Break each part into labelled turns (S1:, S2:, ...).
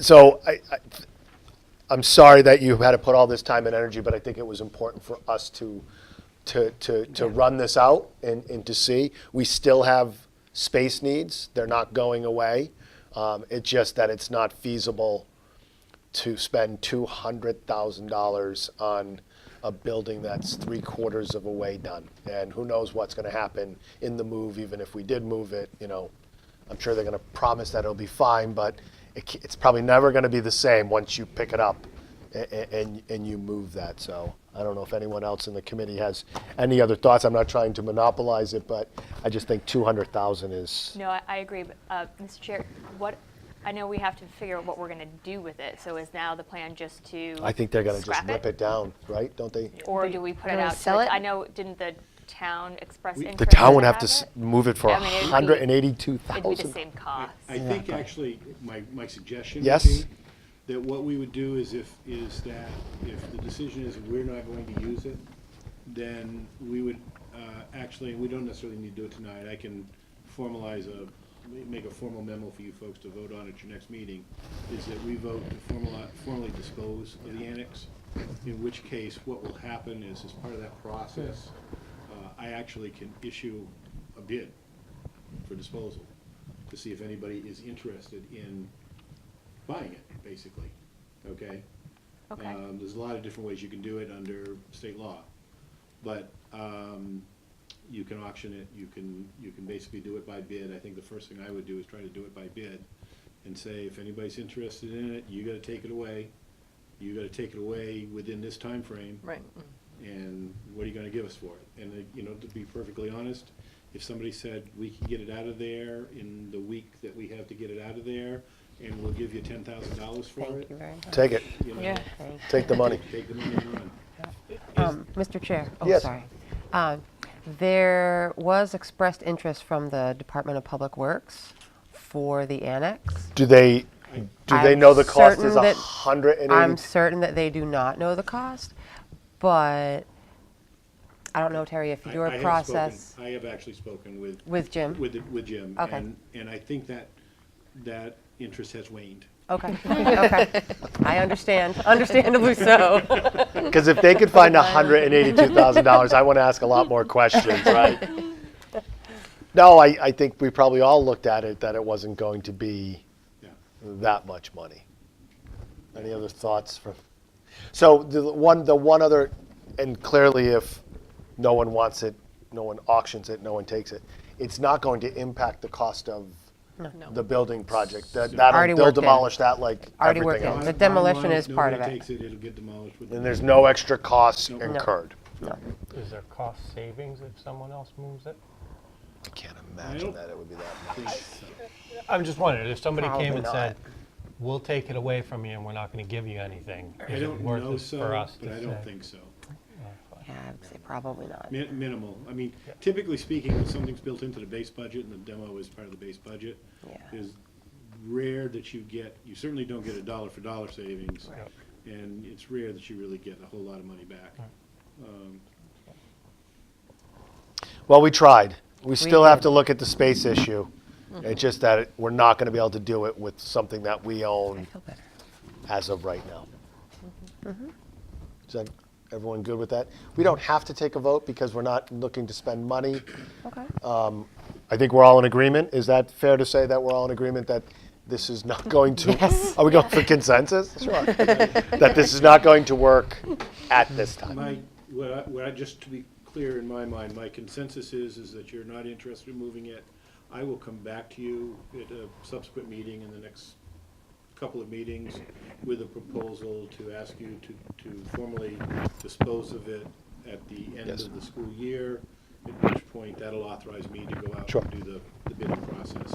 S1: So I, I, I'm sorry that you had to put all this time and energy, but I think it was important for us to, to, to, to run this out and, and to see. We still have space needs. They're not going away. Um, it's just that it's not feasible to spend two hundred thousand dollars on a building that's three quarters of a way done. And who knows what's gonna happen in the move, even if we did move it, you know. I'm sure they're gonna promise that it'll be fine, but it, ca- it's probably never gonna be the same once you pick it up and, and, and you move that, so. I don't know if anyone else in the committee has any other thoughts. I'm not trying to monopolize it, but I just think two hundred thousand is,
S2: No, I, I agree, but, uh, Mr. Chair, what, I know we have to figure out what we're gonna do with it, so is now the plan just to?
S1: I think they're gonna just
S2: scrap
S1: rip it down, right? Don't they?
S2: Or do we put it
S3: Gonna
S2: out? to
S3: sell
S2: the-
S3: it?
S2: I know, didn't the town express interest?
S1: The town would
S2: in
S1: have to s-
S2: it?
S1: move it for
S2: I mean, it'd be-
S1: hundred and eighty-two
S2: It'd be the
S1: thousand.
S2: same cost.
S4: I think actually, my, my suggestion would
S1: Yes?
S4: be that what we would do is if, is that if the decision is we're not going to use it, then we would, uh, actually, we don't necessarily need to do it tonight. I can formalize a, make a formal memo for you folks to vote on at your next meeting, is that we vote to formalize, formally dispose of the annex, in which case what will happen is as part of that process, uh, I actually can issue a bid for disposal, to see if anybody is interested in buying it, basically, okay?
S2: Okay.
S4: Um, There's a lot of different ways you can do it under state law, but um, you can auction it, you can, you can basically do it by bid. I think the first thing I would do is try to do it by bid and say, if anybody's interested in it, you gotta take it away. You gotta take it away within this time frame
S3: Right.
S4: and what are you gonna give us for it? And, uh, you know, to be perfectly honest, if somebody said, we can get it out of there in the week that we have to get it out of there, and we'll give you ten thousand dollars for
S3: Thank
S4: it,
S3: you very much.
S1: Take it,
S4: you know,
S2: Yeah.
S1: take the money.
S4: take the money and run.
S3: Um, Mr. Chair, oh,
S1: Yes.
S3: sorry. Um, There was expressed interest from the Department of Public Works for the annex.
S1: Do they, do they
S3: I'm
S1: know the cost is
S3: certain
S1: a
S3: that-
S1: hundred and
S3: I'm
S1: eighty?
S3: certain that they do not know the cost, but I don't know, Terry, if
S4: I-
S3: your
S4: I have spoken-
S3: process
S4: I have actually spoken with,
S3: with Jim.
S4: with, the- with Jim.
S3: Okay.
S4: and- And I think that, that interest has waned.
S3: Okay, okay. I understand, understandably so.
S1: Because if they could find a hundred and eighty-two thousand dollars, I want to ask a lot more questions, right? No, I, I think we probably all looked at it, that it wasn't going to be
S4: Yeah.
S1: that much money. Any other thoughts from, so the one, the one other, and clearly if no one wants it, no one auctions it, no one takes it, it's not going to impact the cost of the building project. That,
S3: Already
S1: that'll, they'll
S3: worked in.
S1: demolish that like
S3: Already
S1: everything
S3: worked in.
S1: else.
S3: The
S4: Bottom
S3: demolition
S4: line,
S3: is part of
S4: nobody
S3: it.
S4: takes it, it'll get demolished with.
S1: And there's no extra costs
S4: No.
S1: incurred.
S5: Is there cost savings if someone else moves it?
S1: I can't imagine
S4: Nope.
S1: that it would be that much.
S4: I think so.
S5: I'm just wondering, if somebody came
S3: Probably
S5: and
S3: not.
S5: said, we'll take it away from you and we're not gonna give you anything,
S4: I
S5: is it
S4: don't
S5: worth
S4: know
S5: it
S4: so,
S5: for us to
S4: but I don't
S5: say?
S4: think so.
S3: Yeah, I would say probably not.
S4: Mi- Minimal. I mean, typically speaking, when something's built into the base budget and the demo is part of the base budget,
S3: Yeah.
S4: it is rare that you get, you certainly don't get a dollar for dollar savings.
S5: Right.
S4: And it's rare that you really get a whole lot of money back.
S1: Well, we tried. We still have
S3: did. Mm-hmm.
S1: to look at the space issue. It's just that it- we're not going to be able to do it with something that we
S3: I
S1: own
S3: feel better.
S1: as of right now.
S3: Mm-hmm.
S1: Is that, everyone good with that? We don't have to take a vote because we're not looking to spend money.
S3: Okay.
S1: I think we're all in agreement. Is that fair to say that we're all in agreement that this is not going to?
S3: Yes.
S1: Are we going for consensus? Sure. That this is not going to work at this time.
S4: My, what I, what I, just to be clear in my mind, my consensus is, is that you're not interested in moving it. I will come back to you at a subsequent meeting in the next couple of meetings with a proposal to ask you to, to formally dispose of it at the end
S1: Yes.
S4: of the school year, at which point that'll authorize me to go out
S1: Sure.
S4: and do the, the bidding process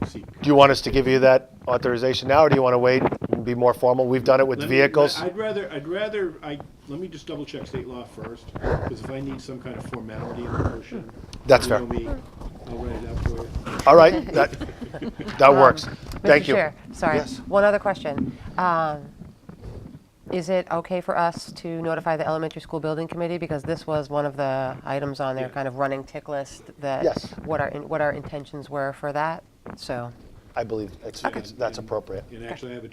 S4: and seek.
S1: Do you want us to give you that authorization now, or do you want to wait and be more formal? We've done it with
S4: Let me-
S1: vehicles.
S4: I'd rather, I'd rather, I, let me just double check state law first, because if I need some kind of formality in the motion.
S1: That's
S4: you
S1: fair.
S4: know me, I'll write it up for you.
S1: All right, that, that works. Thank you.
S3: Mr. Um, Chair, sorry,
S1: Yes.
S3: one other question. Um, Is it okay for us to notify the elementary school building committee? Because this was one of the items on their kind of running tick list that,
S1: Yes.
S3: what our, in- what our intentions were for that, so.
S1: I believe it's, it's- that's appropriate.
S4: And actually, I have a